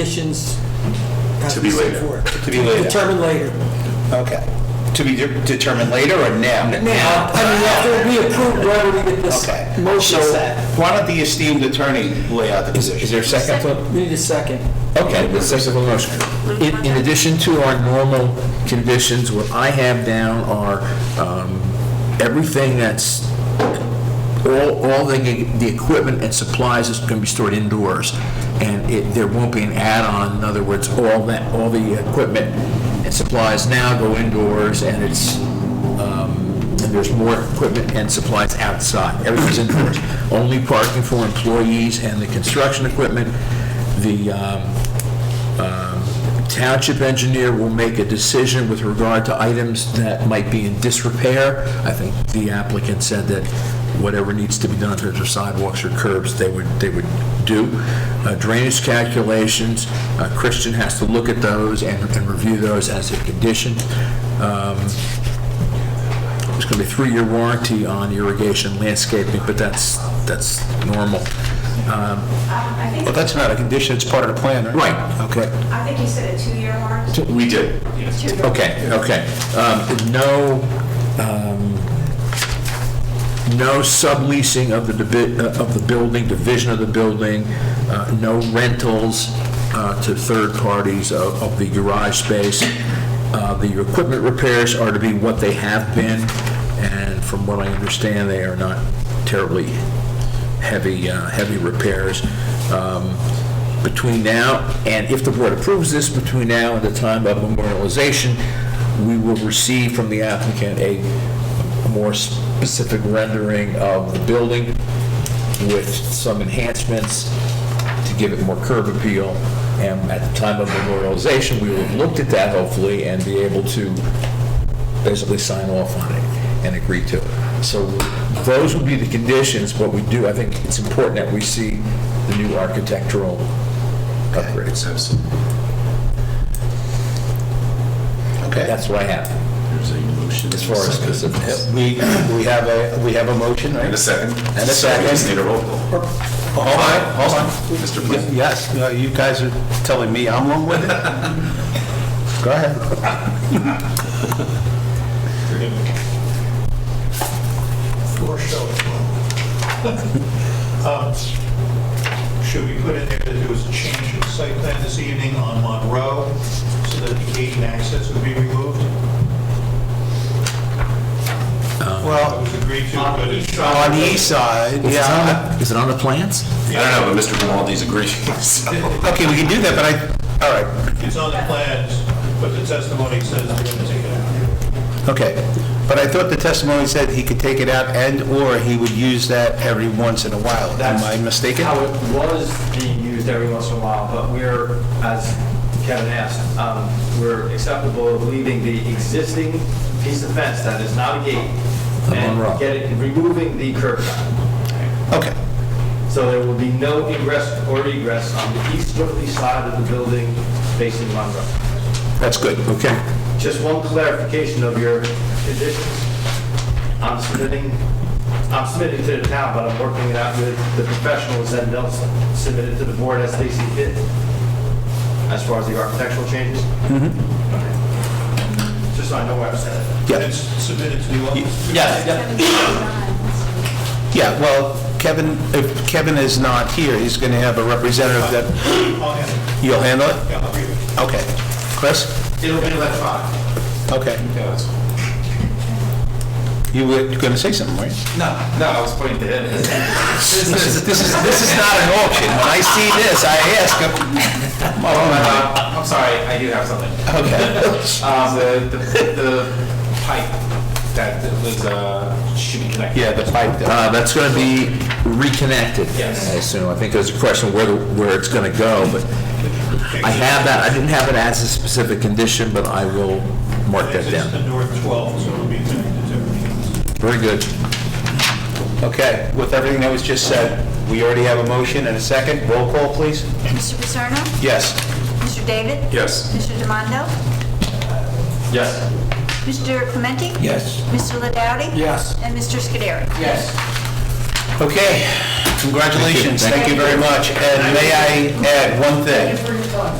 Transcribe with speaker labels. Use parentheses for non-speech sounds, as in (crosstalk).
Speaker 1: conditions. as
Speaker 2: To be
Speaker 1: we
Speaker 2: later.
Speaker 1: set forth.
Speaker 3: To be later.
Speaker 1: Determined later.
Speaker 3: Okay. To be de- determined later or now?
Speaker 1: Now, I mean, after we approve, whether we get this
Speaker 3: Okay.
Speaker 1: motion
Speaker 3: So
Speaker 1: set.
Speaker 3: why don't the esteemed attorney lay out the
Speaker 4: Is
Speaker 3: position?
Speaker 4: there a second to,
Speaker 1: We need a second.
Speaker 4: okay, the second to the motion. In, in addition to our normal conditions, what I have down are, um, everything that's, all, all the, the equipment and supplies is gonna be stored indoors, and it, there won't be an add-on, in other words, all that, all the equipment and supplies now go indoors, and it's, um, and there's more equipment and supplies outside. Everything's indoors. Only parking for employees and the construction equipment. The um, um, township engineer will make a decision with regard to items that might be in disrepair. I think the applicant said that whatever needs to be done in terms of sidewalks or curbs, they would, they would do. Uh, Drainage calculations, uh, Christian has to look at those and and review those as a condition. Um, there's going to be a three-year warranty on irrigation landscaping, but that's, that's normal. Um,
Speaker 5: I
Speaker 3: Well,
Speaker 5: think,
Speaker 3: that's not a condition, it's part of the plan, right?
Speaker 4: Right.
Speaker 3: Okay.
Speaker 5: I think you said a two-year mark.
Speaker 2: We did.
Speaker 5: Two-year.
Speaker 4: Okay, okay. Um, No, um, no subleasing of the, divi- uh, of the building, division of the building, uh, no rentals uh, to third parties of of the garage space. Uh, The equipment repairs are to be what they have been, and from what I understand, they are not terribly heavy, uh, heavy repairs. Um, between now, and if the board approves this, between now and the time of memorialization, we will receive from the applicant a more specific rendering of the building with some enhancements to give it more curb appeal. And at the time of memorialization, we will have looked at that hopefully and be able to basically sign off on it and agree to it. So those would be the conditions, but we do, I think it's important that we see the new architectural upgrades.
Speaker 3: Okay.
Speaker 4: That's what I have,
Speaker 2: There's a motion.
Speaker 4: as far as specifics.
Speaker 3: We, we have a, we have a motion,
Speaker 2: And a
Speaker 3: right?
Speaker 2: second. And
Speaker 3: a
Speaker 2: We
Speaker 3: second.
Speaker 2: just need a roll call.
Speaker 3: Hold on, hold on.
Speaker 2: Mr.
Speaker 3: Y-
Speaker 2: Flynn.
Speaker 3: Yes, no, you guys are telling me I'm wrong with it? (laughs) Go ahead.
Speaker 6: Floor show. (laughs) Um, Should we put in there that there was a change in site plan this evening on Monroe, so that the gate and access would be removed?
Speaker 3: Um,
Speaker 6: Well. It was agreed to, but it's.
Speaker 3: On the east side,
Speaker 4: Is it on
Speaker 3: yeah.
Speaker 4: the- Is it on the plans?
Speaker 2: I don't know, but Mr. Grimaldi's agreeing. so-
Speaker 3: Okay, we can do that, but I, all right,
Speaker 6: It's on the plans, but the testimony says they're gonna take it out.
Speaker 3: okay. But I thought the testimony said he could take it out and/or he would use that every once in a while. Am I mistaken?
Speaker 7: How it was being used every once in a while, but we're, as Kevin asked, um, we're acceptable of leaving the existing piece of fence that is not a gate
Speaker 4: Monroe.
Speaker 7: and get it, removing the curb cut.
Speaker 3: Okay,
Speaker 7: So there will be no ingress or egress on the easterly side of the building facing Monroe.
Speaker 3: that's good.
Speaker 4: Okay.
Speaker 7: Just one clarification of your conditions. I'm submitting, I'm submitting to the town, but I'm working it out with the professionals and they'll submit it to the board as they see fit, as far as the architectural changes. Mm-hmm. Just so I know where I'm standing.
Speaker 3: Yeah.
Speaker 6: And it's submitted to the office.
Speaker 3: Yeah, well, Kevin, if Kevin is not here, he's going to have a representative that,
Speaker 6: I'll handle it.
Speaker 3: you'll handle it?
Speaker 6: Oh, Yeah, I'll agree with
Speaker 3: Okay. Chris?
Speaker 7: It'll be electronic.
Speaker 3: Okay. You were going to say something, right?
Speaker 8: No, no, I was pointing (laughs) to him.
Speaker 3: This is, this is, this is not an auction. When I see this, I ask,
Speaker 8: Uh, I'm sorry, I do have something.
Speaker 3: okay.
Speaker 8: (laughs) Um, the, the, the pipe that was, uh, should be connected.
Speaker 3: Yeah, the pipe, there.
Speaker 4: Uh, That's going to be reconnected.
Speaker 8: Yes.
Speaker 4: I assume, I think there's a question where, the- where it's going to go, but I have that, I didn't have it as a specific condition, but I will mark
Speaker 6: it.
Speaker 4: that
Speaker 6: It's
Speaker 4: down.
Speaker 6: the north 12, so it'll be connected to everything.
Speaker 4: Very good.
Speaker 3: okay, with everything that was just said, we already have a motion and a second. Roll call, please.
Speaker 9: Mr. Paterno?
Speaker 3: Yes.
Speaker 9: Mr. David?
Speaker 2: Yes.
Speaker 9: Mr. Demondo?
Speaker 7: Yes.
Speaker 9: Mr. Clementi?
Speaker 3: Yes.
Speaker 9: Mr. Ladowdy?
Speaker 1: Yes.
Speaker 9: And Mr. Scuderi?
Speaker 3: Okay, congratulations, thank
Speaker 4: Thank
Speaker 3: you very much. And may I add one thing?
Speaker 1: time.